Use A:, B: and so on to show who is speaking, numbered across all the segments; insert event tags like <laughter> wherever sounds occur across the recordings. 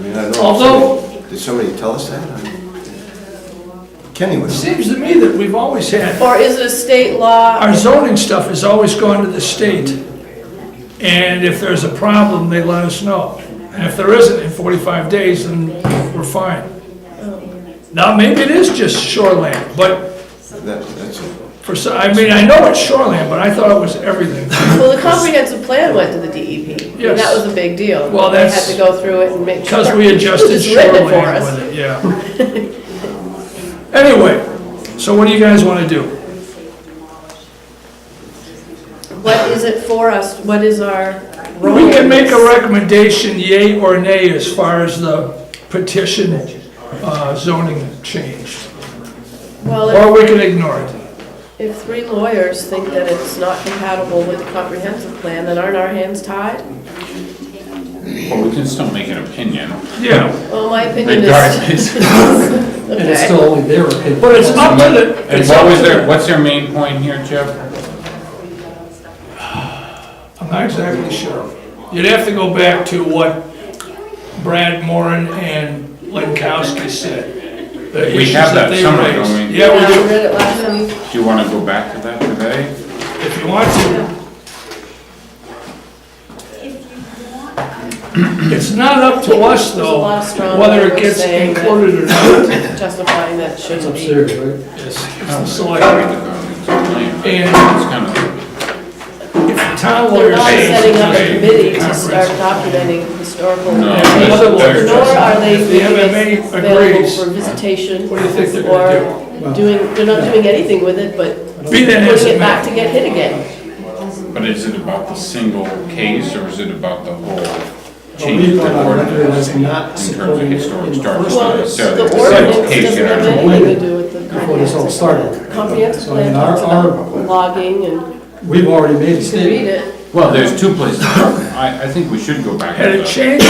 A: mean, I don't. know.
B: Although-
A: Did somebody tell us that? I- Kenny was.
B: Seems to me that we've always had,
C: Or is it state law?
B: our zoning stuff has always gone to the state. And if there's a problem, they let us know. And if there isn't in 45 days, then we're fine. Now, maybe it is just shoreland, but
A: That, that's it.
B: for, so- I mean, I know it's shoreland, but I thought it was everything.
C: Well, the comprehensive plan went to the DEP. I mean, That
B: Yes.
C: was a big deal.
B: Well, that's-
C: They had to go through it and make sure.
B: Because we adjusted
C: It's written for
B: shoreline
C: us.
B: with it, yeah. Anyway, so what do you guys want to do?
C: What is it for us? What is our role?
B: We can make a recommendation, yay or nay, as far as the petition uh, zoning change,
C: Well,
B: or we can ignore it.
C: if- if three lawyers think that it's not compatible with the comprehensive plan, then aren't our hands tied?
D: Well, we can still make an opinion
B: Yeah,
C: Well, my opinion is,
D: regardless.
E: <laughs> And it's
C: okay.
E: still only their opinion.
B: but it's up to the.
D: And what was their, what's their main point here, Jeff?
B: I'm not exactly sure. You'd have to go back to what Brad Moran and Lenkowski said. the
D: We
B: issues
D: have that
B: they
D: somewhere, don't
B: raised.
D: we?
C: Yeah,
B: Yeah, we
C: I
B: do,
C: read it last week.
D: Do you want to go back to that today?
B: if you want to. It's not up to us,
C: There's a
B: though,
C: lot of strong
B: whether it
C: language
B: gets
C: saying that-
B: included or not.
C: <laughs> justifying that it
E: It's
C: shouldn't be.
E: upstairs, right?
B: It's the select, and
D: It's kind
B: if
D: of,
B: the town
C: They're
B: lawyers
C: not
B: say.
C: setting up a
B: okay,
C: committee to start
B: comprehensive.
C: documenting historical.
D: No,
B: that's-
C: information,
B: that's-
C: Nor are they
B: If the
C: making
B: MMA
C: it available
B: agrees,
C: for visitation.
B: what do you think they're gonna
C: Or doing, they're not doing anything with it, but
B: Be that as
C: putting
B: it
C: it back
B: may.
C: to get hit again.
D: but is it about the single case or is it about the whole change
E: We
D: of
E: want
D: the
E: our record as
D: ordinance? In
E: not
D: terms of
E: supporting it
D: historic
E: in the
D: starts,
E: first
D: not
C: Well,
E: place
C: the
D: necessarily the single
C: ordinance
D: case.
C: doesn't
D: you
C: have
D: know.
C: anything to do with the
E: before this all
C: comprehensive.
E: started.
C: Comprehensive
E: So, I mean,
C: plan
E: our-
C: talks about logging and
E: We've already made a
C: you can read
E: statement.
C: it.
D: Well, there's two places. I, I think we should go back to
B: Had it
D: the,
B: changed?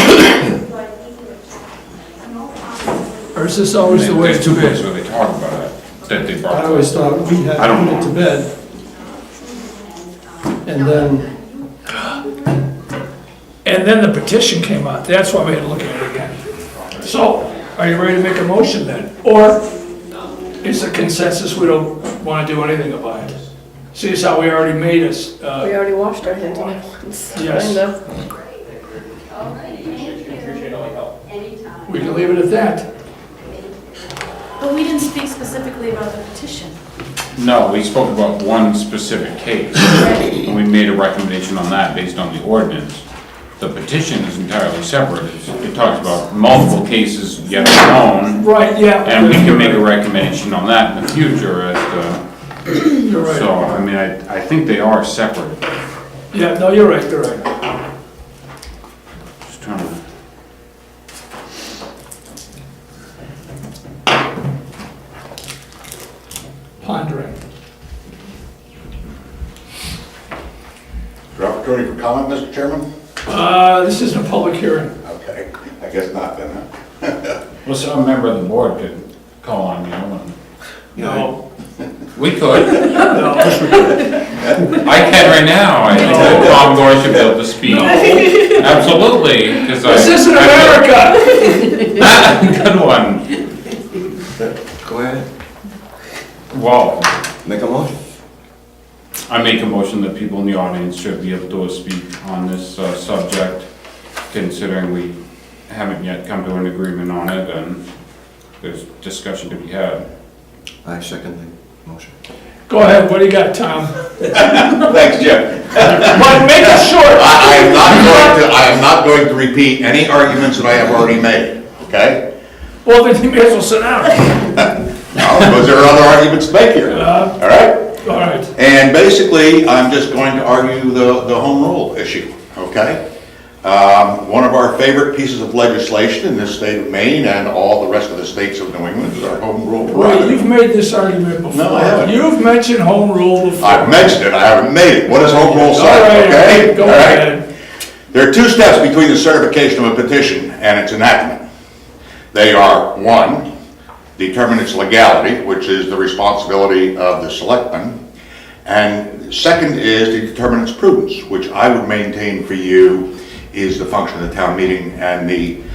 B: Or is this always the way
D: there's
B: it's
D: two
B: been?
D: places where they talk about it, that they
E: I
D: brought up.
E: always thought we had
D: I don't
E: put it
D: know.
E: to bed. And then,
B: And then the petition came out, that's why we had to look at it again. So, are you ready to make a motion then? Or is a consensus, we don't wanna do anything about it? See, it's how we already made us,
C: We
B: uh,
C: already washed our hands of it. It's
B: Yes.
C: kind of-
B: we can leave it at that.
F: But we didn't speak specifically about the petition.
D: No, we spoke about one specific case, and we made a recommendation on that based on the ordinance. The petition is entirely separate, It's- it talks about multiple cases yet unknown,
B: Right, yeah.
D: and we can make a recommendation on that in the future as to,
B: You're right.
D: so, I mean, I, I think they are separate.
B: Yeah, no, you're right, you're right.
D: Just trying to-
B: Pondering.
G: Your opportunity for comment, Mr. Chairman?
B: Uh, this isn't a public hearing.
G: Okay, I guess not then, huh?
D: Well, some member of the board could call on you, and
B: No.
D: we could. I can right now, I told Bob Dorcheville
B: <laughs>
D: to speak. Absolutely, because I.
B: This isn't
D: I-
B: America!
D: <laughs> Good one.
A: Go ahead,
D: Well,
A: make a motion.
D: I make a motion that people in the audience should be able to speak on this uh, subject, considering we haven't yet come to an agreement on it, and there's discussion to be had.
A: I second the motion.
B: Go ahead, what do you got, Tom?
G: Thanks, Jeff.
B: But make it short!
G: I am not going to, I am not going to repeat any arguments that I have already made, okay?
B: Well, then you may as well sit down.
G: Now, because there are other arguments to make here,
B: Uh-huh.
G: all right?
B: All right.
G: And basically, I'm just going to argue the, the home rule issue, okay? Um, One of our favorite pieces of legislation in this state of Maine and all the rest of the states of New England is our home rule
B: Well, you've
G: prerogative.
B: made this argument before.
G: I haven't.
B: You've mentioned home rule before.
G: I've mentioned it, I haven't made it. What does home rule
B: All
G: say,
B: right,
G: okay?
B: Go
G: All right?
B: ahead.
G: There are two steps between the certification of a petition and its enactment. They are, one, determine its legality, which is the responsibility of the selectmen, and second is to determine its prudence, which I would maintain for you is the function of the town meeting and the